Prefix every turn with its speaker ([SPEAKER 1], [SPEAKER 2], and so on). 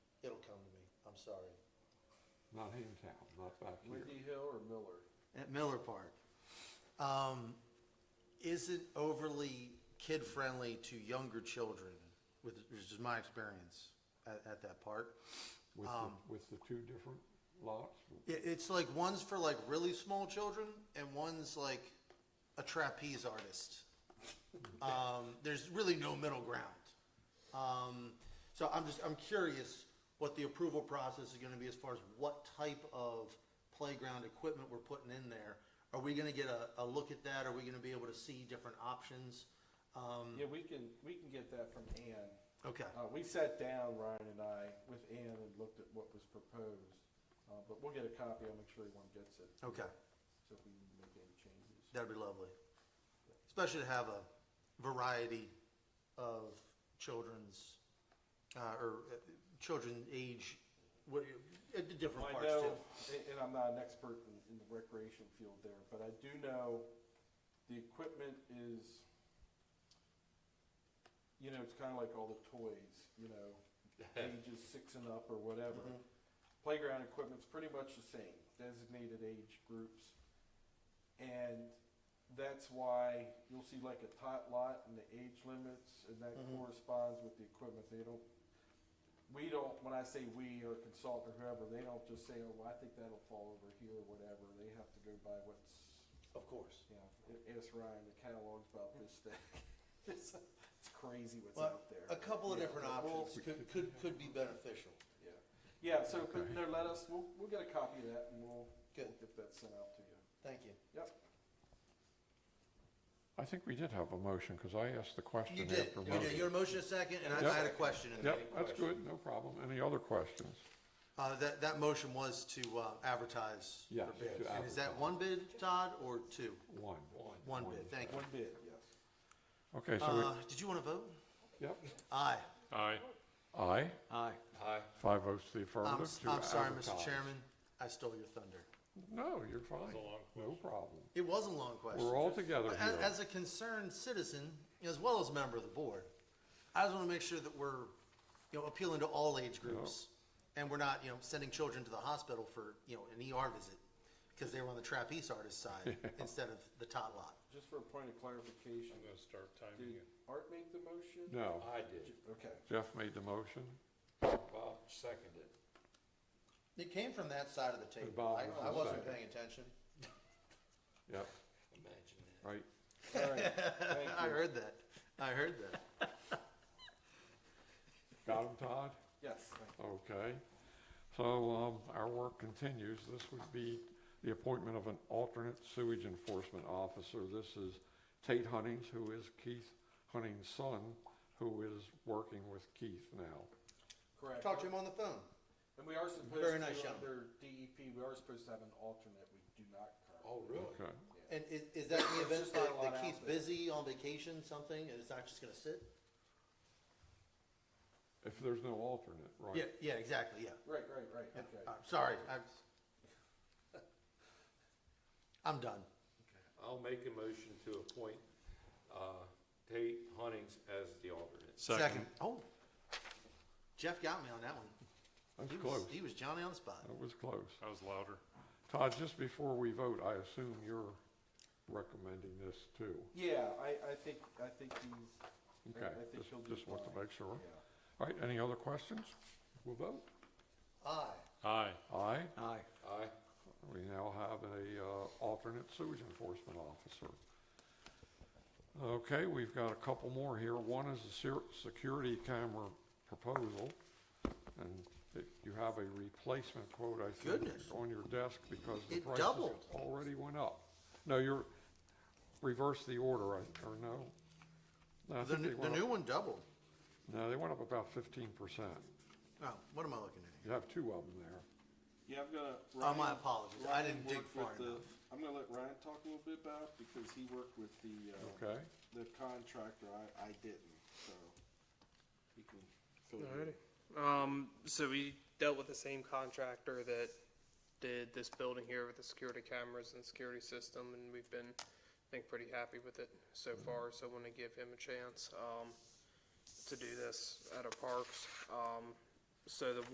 [SPEAKER 1] sorry.
[SPEAKER 2] Not Hamtown, not back here.
[SPEAKER 1] Windy Hill or Miller?
[SPEAKER 3] at Miller Park, um, isn't overly kid-friendly to younger children, with, which is my experience at, at that park.
[SPEAKER 2] With the,
[SPEAKER 3] Um,
[SPEAKER 2] with the two different lots?
[SPEAKER 3] It, it's like, one's for like really small children, and one's like a trapeze artist. Um, there's really no middle ground. Um, so I'm just, I'm curious what the approval process is gonna be as far as what type of playground equipment we're putting in there. Are we gonna get a, a look at that? Are we gonna be able to see different options? Um,
[SPEAKER 1] Yeah, we can, we can get that from Ann.
[SPEAKER 3] okay,
[SPEAKER 1] Uh, we sat down, Ryan and I, with Ann and looked at what was proposed, uh, but we'll get a copy, I'll make sure everyone gets it,
[SPEAKER 3] okay,
[SPEAKER 1] so if we need to make any changes.
[SPEAKER 3] that'd be lovely. Especially to have a variety of children's, uh, or uh, children age, what, uh, different
[SPEAKER 1] I
[SPEAKER 3] parts too.
[SPEAKER 1] know, and, and I'm not an expert in, in the recreation field there, but I do know the equipment is, you know, it's kinda like all the toys, you know, ages six and up or whatever.
[SPEAKER 3] Mm-hmm.
[SPEAKER 1] Playground equipment's pretty much the same, designated age groups. And that's why you'll see like a tot lot and the age limits, and that
[SPEAKER 3] Mhm.
[SPEAKER 1] corresponds with the equipment. They don't, we don't, when I say we or consultant or whoever, they don't just say, oh, well, I think that'll fall over here or whatever. They have to go by what's,
[SPEAKER 3] Of course.
[SPEAKER 1] you know, a- ask Ryan, the catalog's about this thing. It's it's crazy what's
[SPEAKER 3] Well,
[SPEAKER 1] out there.
[SPEAKER 3] A couple of
[SPEAKER 1] Yeah,
[SPEAKER 3] different
[SPEAKER 1] but we'll-
[SPEAKER 3] options could, could, could be beneficial.
[SPEAKER 1] Yeah, yeah, so, but,
[SPEAKER 2] Okay.
[SPEAKER 1] no, let us, we'll, we'll get a copy of that and we'll,
[SPEAKER 3] Good.
[SPEAKER 1] we'll get that sent out to you.
[SPEAKER 3] Thank you.
[SPEAKER 1] Yep.
[SPEAKER 2] I think we did have a motion, because I asked the question
[SPEAKER 3] You did,
[SPEAKER 2] after
[SPEAKER 3] you did.
[SPEAKER 2] motion.
[SPEAKER 3] Your motion is second, and I- I
[SPEAKER 2] Yep.
[SPEAKER 3] had a question in there.
[SPEAKER 2] Yep, that's good, no problem. Any other questions?
[SPEAKER 3] Uh, that, that motion was to uh, advertise
[SPEAKER 2] Yes,
[SPEAKER 3] for bids.
[SPEAKER 2] to
[SPEAKER 3] And is that
[SPEAKER 2] advertise.
[SPEAKER 3] one bid, Todd, or two?
[SPEAKER 2] One.
[SPEAKER 3] One bid, thank you.
[SPEAKER 1] One bid, yes.
[SPEAKER 2] Okay, so
[SPEAKER 3] Uh, did you want to vote?
[SPEAKER 2] we, yep.
[SPEAKER 3] Aye.
[SPEAKER 4] Aye.
[SPEAKER 2] Aye,
[SPEAKER 3] Aye.
[SPEAKER 2] five votes to the
[SPEAKER 3] I'm,
[SPEAKER 2] affirmative
[SPEAKER 3] s-
[SPEAKER 2] to
[SPEAKER 3] I'm sorry, Mr.
[SPEAKER 2] advertise.
[SPEAKER 3] Chairman, I stole your thunder.
[SPEAKER 2] No, you're fine.
[SPEAKER 4] a long
[SPEAKER 2] No problem.
[SPEAKER 3] It was a long question.
[SPEAKER 2] We're all together
[SPEAKER 3] But
[SPEAKER 2] here.
[SPEAKER 3] a- As a concerned citizen, as well as a member of the board, I just want to make sure that we're, you know, appealing to all age groups. And we're not, you know, sending children to the hospital for, you know, an ER visit because they were on the trapeze artist side instead of the tot lot.
[SPEAKER 1] Just for a point of clarification,
[SPEAKER 4] I'm gonna start timing
[SPEAKER 1] did
[SPEAKER 4] it.
[SPEAKER 1] Art make the motion?
[SPEAKER 2] No,
[SPEAKER 5] I did.
[SPEAKER 1] Okay,
[SPEAKER 2] Jeff made the motion,
[SPEAKER 5] Bob seconded.
[SPEAKER 3] It came from that side of the table.
[SPEAKER 2] Bob
[SPEAKER 3] I,
[SPEAKER 2] was
[SPEAKER 3] I
[SPEAKER 2] on
[SPEAKER 3] wasn't
[SPEAKER 2] second.
[SPEAKER 3] paying attention.
[SPEAKER 2] yep,
[SPEAKER 5] Imagine that.
[SPEAKER 2] right.
[SPEAKER 1] all right, thank
[SPEAKER 3] I
[SPEAKER 1] you.
[SPEAKER 3] heard that. I heard that.
[SPEAKER 2] Got him, Todd?
[SPEAKER 1] Yes, thank you.
[SPEAKER 2] Okay, so, um, our work continues. This would be the appointment of an alternate sewage enforcement officer. This is Tate Huntings, who is Keith Hunting's son, who is working with Keith now.
[SPEAKER 1] correct.
[SPEAKER 3] Talked to him on the phone.
[SPEAKER 1] And we are supposed
[SPEAKER 3] Very nice
[SPEAKER 1] to,
[SPEAKER 3] gentleman.
[SPEAKER 1] under DEP, we are supposed to have an alternate, we do not currently.
[SPEAKER 5] Oh, really?
[SPEAKER 2] Okay,
[SPEAKER 3] And is, is that the
[SPEAKER 1] There's
[SPEAKER 3] event
[SPEAKER 1] just not
[SPEAKER 3] that
[SPEAKER 1] a lot
[SPEAKER 3] that
[SPEAKER 1] out
[SPEAKER 3] Keith's
[SPEAKER 1] there.
[SPEAKER 3] busy on vacation, something, and it's not just gonna sit?
[SPEAKER 2] if there's no alternate, right?
[SPEAKER 3] Yeah, yeah, exactly, yeah.
[SPEAKER 1] Right, right, right, okay.
[SPEAKER 3] Uh, Sorry, I'm, I'm done.
[SPEAKER 5] I'll make a motion to appoint, uh, Tate Huntings as the alternate.
[SPEAKER 3] Oh, Jeff got me on that one.
[SPEAKER 2] That's
[SPEAKER 3] He was,
[SPEAKER 2] close.
[SPEAKER 3] he was Johnny on the spot.
[SPEAKER 2] That was close.
[SPEAKER 4] I was louder.
[SPEAKER 2] Todd, just before we vote, I assume you're recommending this too.
[SPEAKER 1] Yeah, I, I think, I think he's, I-
[SPEAKER 2] Okay,
[SPEAKER 1] I think
[SPEAKER 2] just,
[SPEAKER 1] he'll do
[SPEAKER 2] just want to
[SPEAKER 1] fine.
[SPEAKER 2] make sure.
[SPEAKER 1] yeah.
[SPEAKER 2] All right, any other questions? We'll vote.
[SPEAKER 3] Aye.
[SPEAKER 4] Aye.
[SPEAKER 2] Aye.
[SPEAKER 3] Aye.
[SPEAKER 5] Aye.
[SPEAKER 2] We now have a uh, alternate sewage enforcement officer. Okay, we've got a couple more here. One is a ser- security camera proposal. And it- you have a replacement quote, I think,
[SPEAKER 3] Goodness.
[SPEAKER 2] on your desk because the
[SPEAKER 3] It
[SPEAKER 2] prices
[SPEAKER 3] doubled.
[SPEAKER 2] already went up. No, you're, reverse the order, I- or no? No, I
[SPEAKER 3] The,
[SPEAKER 2] think they
[SPEAKER 3] new- the
[SPEAKER 2] went up-
[SPEAKER 3] new one doubled.
[SPEAKER 2] No, they went up about fifteen percent.
[SPEAKER 3] Oh, what am I looking at?
[SPEAKER 2] You have two of them there.
[SPEAKER 1] Yeah, I'm gonna.
[SPEAKER 3] Oh, my
[SPEAKER 1] Ryan-
[SPEAKER 3] apologies. I
[SPEAKER 1] Ryan
[SPEAKER 3] didn't dig
[SPEAKER 1] worked with
[SPEAKER 3] far
[SPEAKER 1] the-
[SPEAKER 3] enough.
[SPEAKER 1] I'm gonna let Ryan talk a little bit about, it because he worked with the, uh,
[SPEAKER 2] Okay,
[SPEAKER 1] the contractor, I, I didn't, so. He can. fill you in.
[SPEAKER 6] Um, so we dealt with the same contractor that did this building here with the security cameras and security system, and we've been, I think, pretty happy with it so far, so I want to give him a chance, um, to do this at our parks. Um, so the